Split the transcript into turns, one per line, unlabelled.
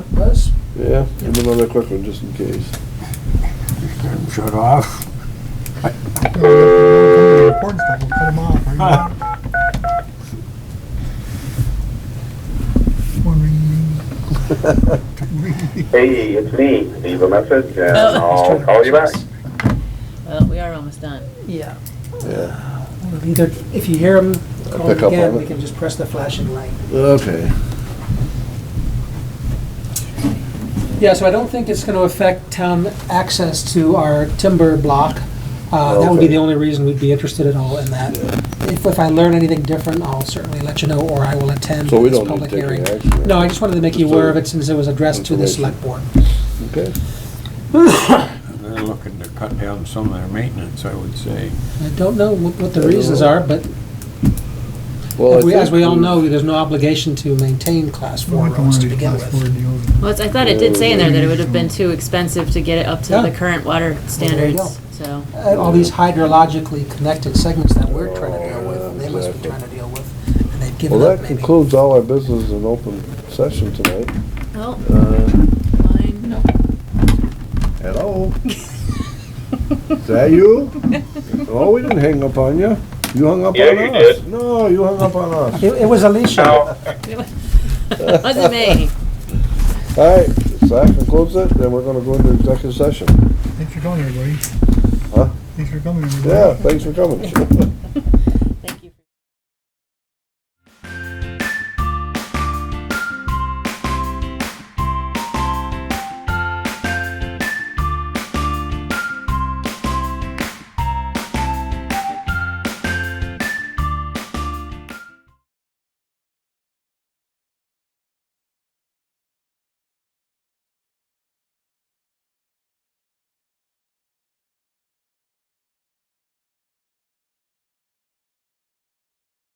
Yeah, and another quick one, just in case.
Shut off.
Record stuff, we'll cut 'em off. Are you on? One ring, two ring.
Hey, it's me. Leave a message and
Oh.
I'll call you back.
Well, Oh, we are almost done.
Yeah,
Yeah,
Well, either, if you hear them, call
pick up
again,
on it.
we can just press the flashing light.
okay.
Yeah, so I don't think it's gonna affect town access to our timber block. Uh, that would be
Okay.
the only reason we'd be interested at all in that. If, if I learn anything different, I'll certainly let you know, or I will attend
So we
this
don't need
public
to take any
hearing.
action, right?
No, I just wanted to make you
Just
aware
a
of it since it was addressed to the select
information.
board.
Okay.
They're looking to cut down some of their maintenance, I would say.
I don't know what, what the
I don't
reasons
know.
are, but
Well, I
we- as
think
we all
we've-
know, there's no obligation to maintain class four
Not the
roads
one
to
who
begin
class four
with.
deals.
Well, it's, I thought it did say in there that it would have been too expensive to get it up to
Yeah.
the current water
there you
standards, so.
Uh, All these hydrologically connected segments that we're trying to deal with, they must be trying to deal with, and they've
Well,
given up
that
maybe.
concludes all our business in open session tonight.
Well,
Uh,
fine.
Hello? Is that you? Oh, we didn't hang up on you. You hung up on us.
Yeah, you did.
No, you hung up on us.
It it was Alicia.
Now,
Wasn't me.
All right, so that concludes it, then we're gonna go into executive session.
Thanks for coming, everybody.
Huh?
Thanks for coming, everybody.
Yeah, thanks for coming.